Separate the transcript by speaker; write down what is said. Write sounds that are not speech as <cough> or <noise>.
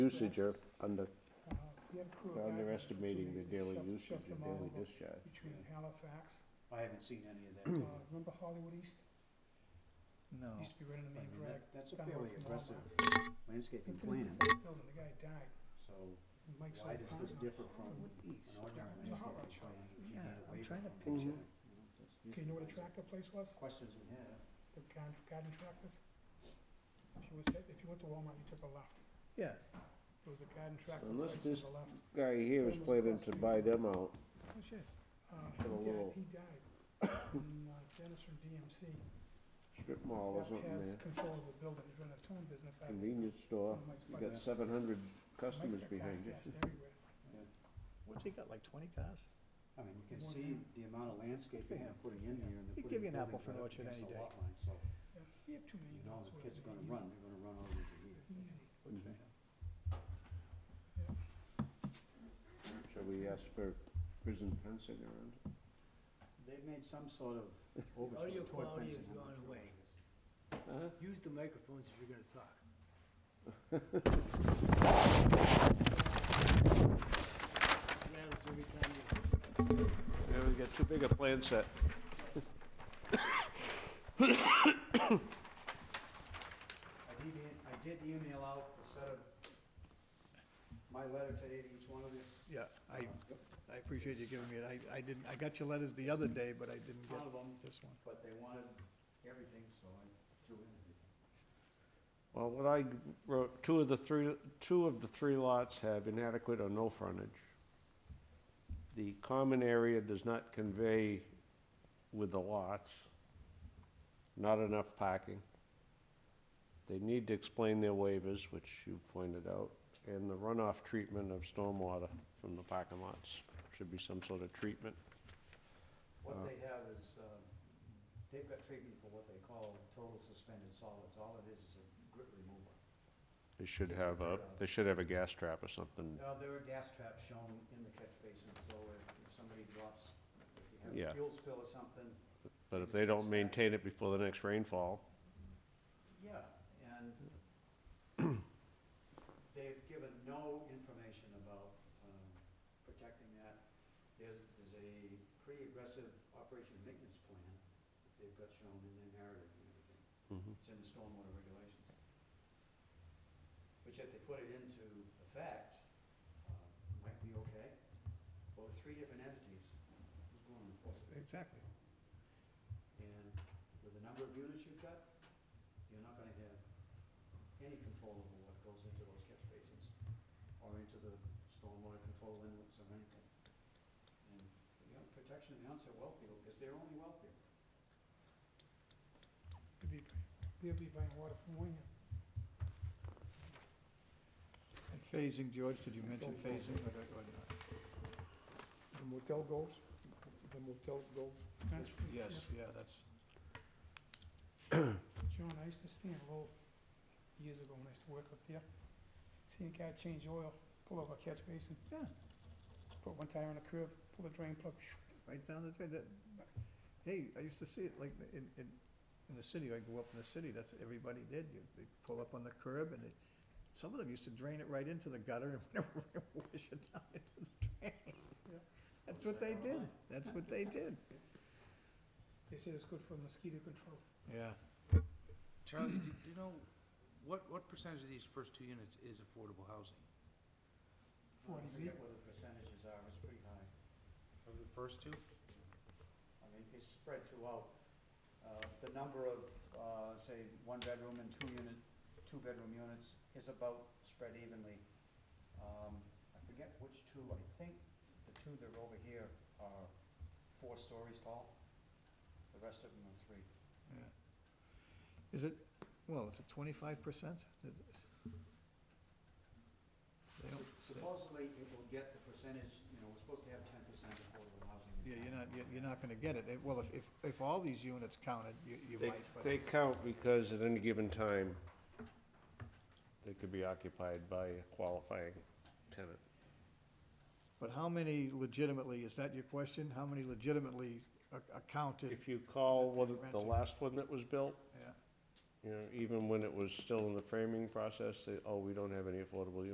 Speaker 1: usage are under,
Speaker 2: Uh, we had a crew of
Speaker 1: We're
Speaker 2: guys that
Speaker 1: underestimating the
Speaker 2: took two
Speaker 1: daily
Speaker 2: days and
Speaker 1: usage
Speaker 2: shoved
Speaker 1: and
Speaker 2: them all
Speaker 1: daily
Speaker 2: over
Speaker 1: discharge. Hmm.
Speaker 2: Between Halifax,
Speaker 3: I haven't seen any
Speaker 4: <clears throat>
Speaker 3: of that.
Speaker 2: uh,
Speaker 3: data.
Speaker 2: remember Hollywood East?
Speaker 4: No.
Speaker 2: Used to be right in the
Speaker 3: I
Speaker 2: main
Speaker 3: mean,
Speaker 2: drag.
Speaker 3: that- That's a
Speaker 2: down
Speaker 3: fairly
Speaker 2: from all
Speaker 3: aggressive
Speaker 2: that.
Speaker 3: landscaping
Speaker 2: Something in
Speaker 3: plan,
Speaker 2: this Building, the guy died,
Speaker 3: so
Speaker 2: and Mike's
Speaker 3: why
Speaker 2: old
Speaker 3: does this
Speaker 2: partner.
Speaker 3: differ from an
Speaker 4: East.
Speaker 3: ordinary
Speaker 2: It was a hot rod shop.
Speaker 3: landscaping plan? that you
Speaker 4: Yeah,
Speaker 3: need a
Speaker 4: I'm
Speaker 3: waiver
Speaker 4: trying to
Speaker 3: from?
Speaker 1: picture.
Speaker 3: You know, that's- these
Speaker 2: Okay, you know what a
Speaker 3: guys are
Speaker 2: tractor place was?
Speaker 3: Questions we have.
Speaker 2: The garden, garden tractors? If you was, hit- if you went to Walmart, you took a left.
Speaker 4: Yeah,
Speaker 2: There was a garden tractor
Speaker 1: Unless
Speaker 2: place
Speaker 1: this-
Speaker 2: on the left.
Speaker 1: guy here is planning to buy them out.
Speaker 4: oh shit.
Speaker 2: Uh,
Speaker 1: Got a
Speaker 2: he
Speaker 1: little-
Speaker 2: died, he
Speaker 1: <coughs>
Speaker 2: died. And uh, Dennis from DMC,
Speaker 1: Strip mall or
Speaker 2: that
Speaker 1: something
Speaker 2: has
Speaker 1: there,
Speaker 2: control of the building, he's running a towing business out of it.
Speaker 1: convenience store.
Speaker 2: One of
Speaker 1: You
Speaker 2: Mike's buddies.
Speaker 1: got seven hundred
Speaker 2: So Mike's
Speaker 1: customers
Speaker 2: got
Speaker 1: behind
Speaker 2: fast
Speaker 1: you.
Speaker 2: gas everywhere.
Speaker 4: What's he got, like twenty cars?
Speaker 3: I mean, you can
Speaker 2: More
Speaker 3: see
Speaker 2: than-
Speaker 3: the amount of landscaping
Speaker 4: Yeah.
Speaker 3: they're putting in here and they're
Speaker 4: He'd
Speaker 3: putting.
Speaker 4: give you an
Speaker 3: buildings
Speaker 4: apple for
Speaker 3: right
Speaker 4: an
Speaker 3: up
Speaker 4: orchard
Speaker 3: against
Speaker 4: any
Speaker 3: the
Speaker 4: day.
Speaker 3: lot line, So,
Speaker 2: Yeah, we have two
Speaker 3: you
Speaker 2: million
Speaker 3: know,
Speaker 2: dollars
Speaker 3: the
Speaker 2: worth
Speaker 3: kids
Speaker 2: of
Speaker 3: are gonna
Speaker 2: easy-
Speaker 3: run, they're gonna run over to here.
Speaker 2: Easy.
Speaker 4: Good for
Speaker 1: Mhm.
Speaker 4: him.
Speaker 1: Shall we ask for prison fencing around?
Speaker 3: They've made some sort
Speaker 4: <laughs>
Speaker 3: of overture toward
Speaker 5: quality has
Speaker 3: fencing. I'm
Speaker 5: gone
Speaker 3: not sure
Speaker 5: away.
Speaker 3: what it is.
Speaker 1: Uh-huh.
Speaker 5: Use the microphones if you're gonna
Speaker 1: <laughs>
Speaker 5: talk. Rattles every time you.
Speaker 1: Yeah, we got too big a plan set.
Speaker 3: I did, e- I did email out a set of my letter to each one of you.
Speaker 4: Yeah, I, I appreciate you giving me it. I, I didn't, I got your letters the other day, but I didn't
Speaker 3: One
Speaker 4: get
Speaker 3: of them,
Speaker 4: this one.
Speaker 3: but they wanted everything, so I threw in everything.
Speaker 1: Well, what I wrote, two of the three, two of the three lots have inadequate or no frontage. The common area does not convey with the lots, not enough parking. They need to explain their waivers, which you pointed out, and the runoff treatment of stormwater from the parking lots. Should be some sort of treatment.
Speaker 3: What
Speaker 1: Uh,
Speaker 3: they have is, uh, they've got treatment for what they call total suspended solids. All it is is a grit remover.
Speaker 1: They should have a, they should have a gas trap or something.
Speaker 3: Now, there are gas traps shown in the catch basin, so if if somebody drops, if you have
Speaker 1: Yeah.
Speaker 3: a fuel spill or something,
Speaker 1: But if they don't maintain it before the next rainfall,
Speaker 3: yeah, and they've given no information about um, protecting that. There's, there's a pretty aggressive operation maintenance plan that they've got shown in their narrative and everything.
Speaker 1: mhm.
Speaker 3: It's in the stormwater regulations. Which if they put it into effect, uh, might be okay. But with three different entities, who's going to enforce it?
Speaker 4: Exactly.
Speaker 3: And with the number of units you've got, you're not gonna have any control over what goes into those catch basins or into the stormwater control inlets or anything. And, you know, protection of the onset well field is their only well field.
Speaker 2: Could be, they'll be buying water from Wayne.
Speaker 4: And phasing, George, did you mention phasing or or not?
Speaker 6: The motel goals, the motel goals,
Speaker 2: That's-
Speaker 4: Yes, yeah, that's,
Speaker 2: John, I used to stand low years ago when I used to work up there. Seeing a guy change oil, pull over a catch basin,
Speaker 4: yeah,
Speaker 2: put one tire on the curb, pull the drain plug,
Speaker 4: right down the, that, hey, I used to see it like in, in, in the city, I grew up in the city, that's what everybody did. You, they pull up on the curb and it, some of them used to drain it right into the gutter and <laughs> whatever, wash it down into the drain.
Speaker 2: Yeah.
Speaker 4: That's what they did, that's what they did.
Speaker 2: they said it's good for mosquito control.
Speaker 4: Yeah.
Speaker 7: Charlie, do do you know, what, what percentage of these first two units is affordable housing?
Speaker 3: I
Speaker 2: Forty B,
Speaker 3: forget what the percentages are, it's pretty high.
Speaker 7: Of the first two?
Speaker 3: I mean, it's spread throughout. Uh, The number of, uh, say, one-bedroom and two-unit, two-bedroom units is about spread evenly. Um, I forget which two, I think the two that are over here are four stories tall. The rest of them are three.
Speaker 4: Yeah. Is it, well, is it twenty-five percent?
Speaker 3: Supposedly, it will get the percentage, you know, we're supposed to have ten percent affordable housing. in
Speaker 4: Yeah, you're
Speaker 3: town.
Speaker 4: not, you're- you're not gonna get it. It- Well, if, if, if all these units counted, you, you
Speaker 1: They,
Speaker 4: might, but,
Speaker 1: they count because at any given time, they could be occupied by a qualifying tenant.
Speaker 4: but how many legitimately, is that your question? How many legitimately are are counted?
Speaker 1: If you call one, the
Speaker 4: Renting.
Speaker 1: last one that was built,
Speaker 4: Yeah.
Speaker 1: you know, even when it was still in the framing process, they, oh, we don't have any affordable units.